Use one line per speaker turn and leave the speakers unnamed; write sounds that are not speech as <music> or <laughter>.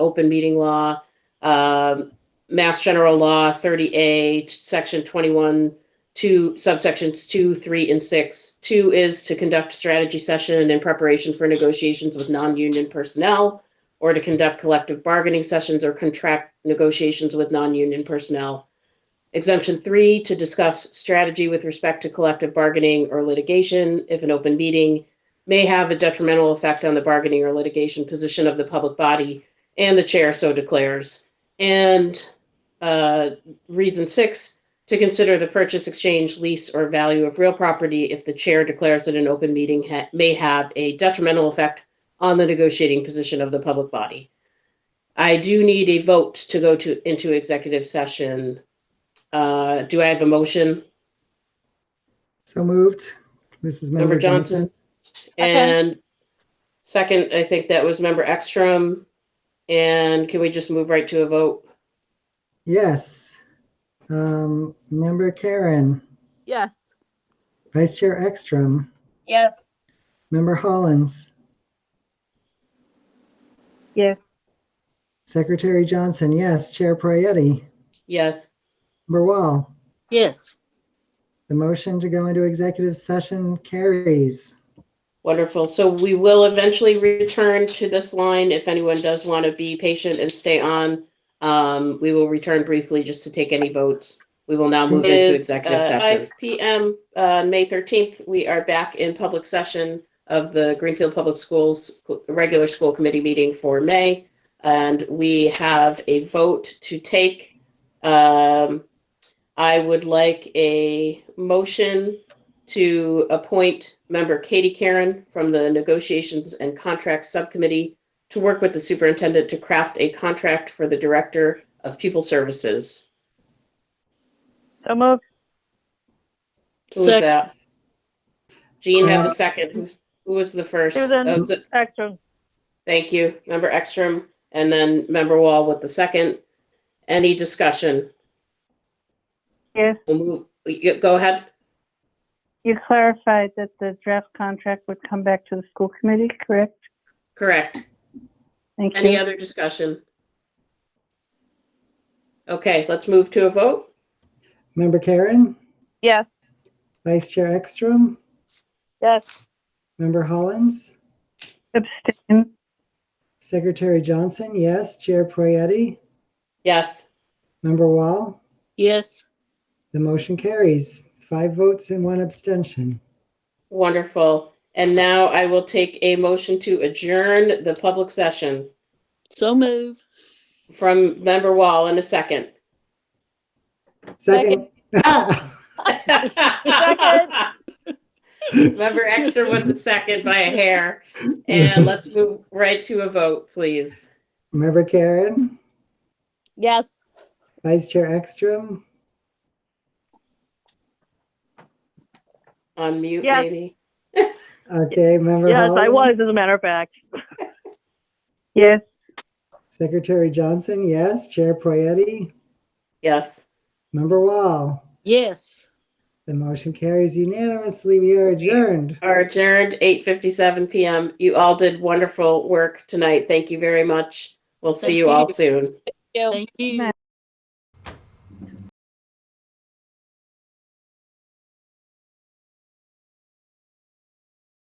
open meeting law, um, Mass General Law 30A, Section 21, two subsections two, three, and six. Two is to conduct strategy session in preparation for negotiations with non-union personnel or to conduct collective bargaining sessions or contract negotiations with non-union personnel. Exemption three, to discuss strategy with respect to collective bargaining or litigation if an open meeting may have a detrimental effect on the bargaining or litigation position of the public body and the chair so declares. And uh, reason six, to consider the purchase, exchange, lease, or value of real property if the chair declares that an open meeting ha- may have a detrimental effect on the negotiating position of the public body. I do need a vote to go to, into executive session. Uh, do I have a motion?
So moved. Mrs.
Member
Member
Johnson?
Johnson.
And second, I think that was member Ekstrom. And can we just move right to a vote?
Yes. Um, Member Karen,
Yes.
Vice Chair Ekstrom,
Yes.
Member Hollins.
Yes.
Secretary Johnson, yes. Chair Prayety,
Yes.
Member Wall.
Yes.
The motion to go into executive session carries.
Wonderful. So we will eventually return to this line. If anyone does want to be patient and stay on, um, we will return briefly just to take any votes. We will now move into
Is,
executive
uh,
session. 5 PM, uh, May 13th, we are back in public session of the Greenfield Public Schools Regular School Committee meeting for May. And we have a vote to take. Um, I would like a motion to appoint member Katie Karen from the Negotiations and Contracts Subcommittee to work with the superintendent to craft a contract for the Director of Pupil Services.
So moved.
Who was
Sec-
that? Jean had the second. Who- Who was the first?
Susan.
Oh, so-
Action.
Thank you, member Ekstrom, and then member Wall with the second. Any discussion?
Yes.
We'll move, y- go ahead.
You clarified that the draft contract would come back to the school committee, correct?
Correct.
Thank
Any
you.
other discussion? Okay, let's move to a vote.
Member Karen,
Yes.
Vice Chair Ekstrom,
Yes.
Member Hollins,
Abstain.
Secretary Johnson, yes. Chair Prayety,
Yes,
Member Wall.
Yes,
The motion carries. Five votes and one abstention.
wonderful. And now I will take a motion to adjourn the public session
so move.
from member Wall in a second.
Second.
Second.
<laughs> Member Extra with the second by a hair. And let's move right to a vote, please.
<laughs> Member Karen,
Yes.
Vice Chair Ekstrom,
Unmute
Yes.
maybe.
okay, Member
Yes, I
Hollins,
was, as a matter of fact.
Yes.
Secretary Johnson, yes. Chair Poyetty,
Yes.
Member Wall.
Yes.
The motion carries unanimously. We are adjourned.
are adjourned 8:57 PM. You all did wonderful work tonight. Thank you very much. We'll see you all soon.
Thank you.
Night.